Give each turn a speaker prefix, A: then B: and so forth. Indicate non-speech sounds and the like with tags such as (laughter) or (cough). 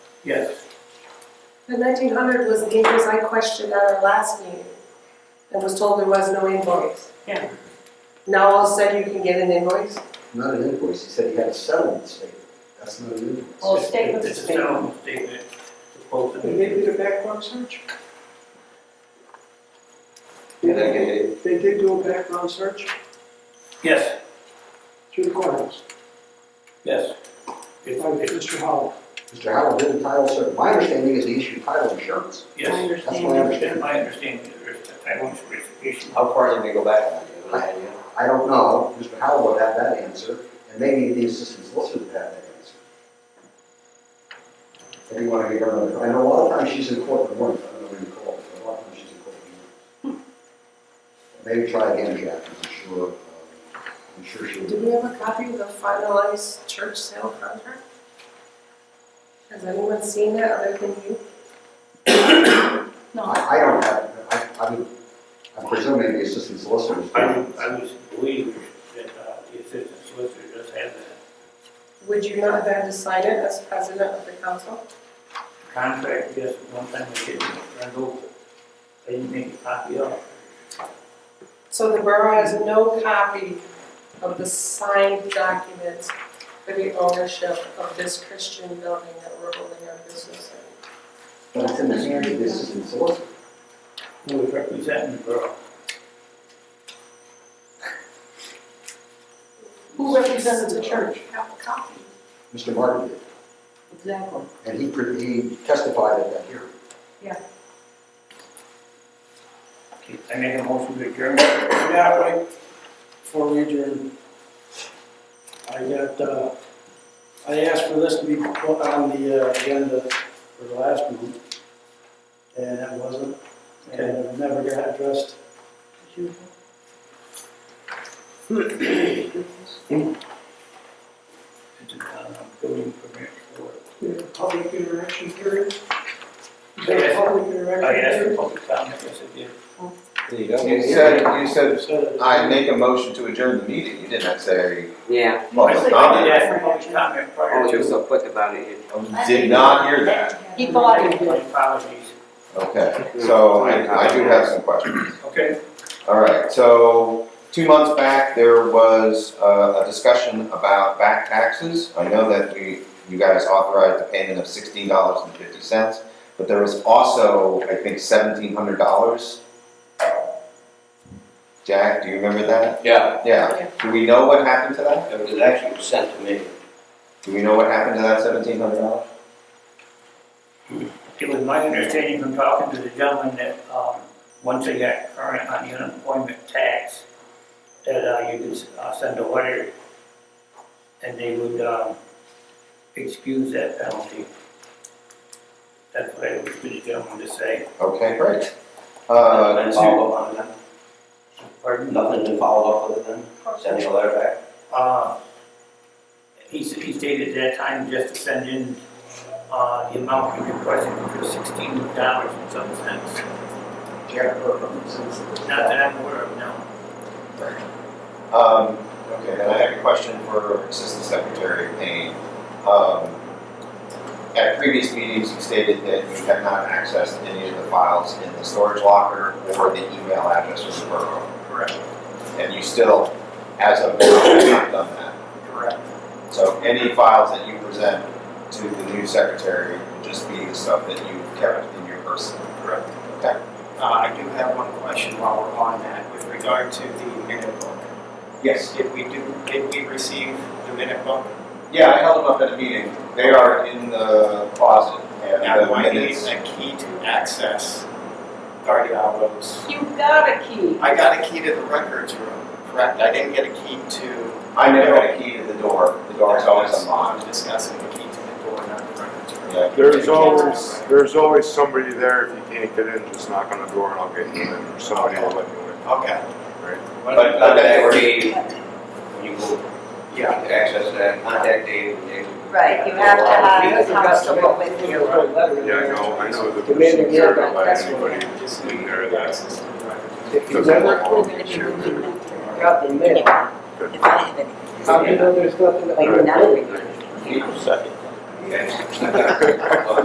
A: Yes.
B: The nineteen hundred was the invoice I questioned at our last meeting and was told there was no invoice.
A: Yeah.
B: Now all of a sudden you can get an invoice?
C: Not an invoice, he said he had a settlement statement, that's not an invoice.
A: Well, statement. It's a settlement statement. It's supposed to
D: They
A: be.
D: did do a background search?
C: And I get
D: They did do a background search
A: Yes,
D: through the courthouse
A: yes.
D: by
A: It's- it's-
D: Mr. Howell.
C: Mr. Howell didn't title search, my understanding is he issued title insurance.
A: Yes,
C: That's my
A: that's
C: understanding.
A: my understanding, there's a title insurance issue.
E: How far did they go back on it? Do you have any idea?
C: I don't know, Mr. Howell would have that answer, and maybe the assistant solicitor would have that answer. If you want to give her another, I know a lot of times she's in court in the morning, I don't know when you call, but a lot of times she's in court in the morning. Maybe try again, Jack, 'cause I'm sure, um, I'm sure she'll.
B: Do we have a copy of the finalized church sale contract? Has anyone seen that other than you?
C: I, I don't have, I, I would, I'm presuming the assistant solicitor.
A: I would, I would believe that uh, the assistant solicitor does have the
B: Would you not have had to sign it as president of the council?
A: contract, yes, one time we did, run over. I didn't make a copy of it.
B: So the borough has no copy of the signed documents for the ownership of this Christian building that we're holding our business in.
C: But it's in the hands of the assistant solicitor.
A: Who was representing the borough?
B: Who represents the church? Have a copy.
C: Mr. Martin did,
B: Exactly.
C: and he, pre- he testified at that hearing.
A: Okay, I make a motion to adjourn.
D: Yeah, right, before we adjourn. I got, uh, I asked for this to be put on the uh, agenda for the last one. And it wasn't, and it never got addressed.
A: It's a uh, building permit for,
D: Public interaction hearing?
A: Yes.
D: Public
A: I asked
D: interaction
A: for public comment, yes, I did.
E: There you go.
F: You said, you
D: hearing?
F: said,
D: Said it.
F: I make a motion to adjourn the meeting, you did not say
G: Yeah,
F: public
A: I did
F: comment.
A: ask for public comment prior
G: oh,
A: to.
G: you're so quick about it.
F: Did not hear that.
H: He bought it.
A: My Apologies.
F: Okay, so I, I do have some questions.
A: Okay,
F: All right, so two months back, there was uh, a discussion about back taxes. I know that we, you guys authorized the payment of sixteen dollars and fifty cents, but there was also, I think, seventeen hundred dollars. Jack, do you remember that?
E: Yeah,
F: Yeah, do we know what happened to that?
E: it was actually sent to me.
F: Do we know what happened to that seventeen hundred dollars?
A: it was my understanding from talking to the gentleman that, um, once they got current on the unemployment tax, that, uh, you could, uh, send a letter, and they would, um, excuse that penalty. That's what I was to the gentleman to say.
F: Okay, great. Uh,
I: oh.
E: Nothing to follow
F: two,
E: up on it then?
A: Pardon?
E: Nothing to follow up with it then? Send me a letter back?
A: Uh, He s- he stated at that time just to send in uh, the amount he requested, which was sixteen dollars and some cents.
C: Jack Burkham, assistant.
A: Not that I'm aware of, no.
F: um, okay, then I have a question for Assistant Secretary Payne. Um, at previous meetings, you stated that you have not accessed any of the files in the storage locker or the email address of the borough,
A: Correct,
F: and you still, as of now, have not done that.
A: correct.
F: So any files that you present to the new secretary will just be the stuff that you've kept in your person. Correct. Okay.
I: Uh, I do have one question while we're on that, with regard to the minute book.
F: Yes.
I: Did we do, did we receive the minute book?
F: Yeah, I held them up at a meeting. They are in the closet. And
I: Now, do
F: the
I: I need
F: minutes.
I: a key to access Guardiolo's?
H: You got a key.
I: I got a key to the records room, correct? I didn't get a key to.
F: I never had a key to the door. The door is always
I: I'm
F: unlocked.
I: discussing the key to the door, not the records room.
F: Yeah.
J: There's always, there's always somebody there if you can't get in, just knock on the door and I'll get you in, or somebody will let you in.
I: Okay.
F: But, but they were,
E: Dave, when you go to
I: Yeah.
E: access that, contact Dave and Dave. will-
H: Right, you have to have a constable with you.
J: Yeah, I know, I know that
D: Demand
J: there's
D: of
J: there
D: your-
J: to let
D: that's
J: anybody
I: Just
J: in there that
I: access to the records.
D: If you
J: doesn't
D: never
J: belong.
D: got the mail,
H: If I have any.
D: how do you know there's nothing?
F: (laughs)
H: Like, none of it.
E: Second. Yes.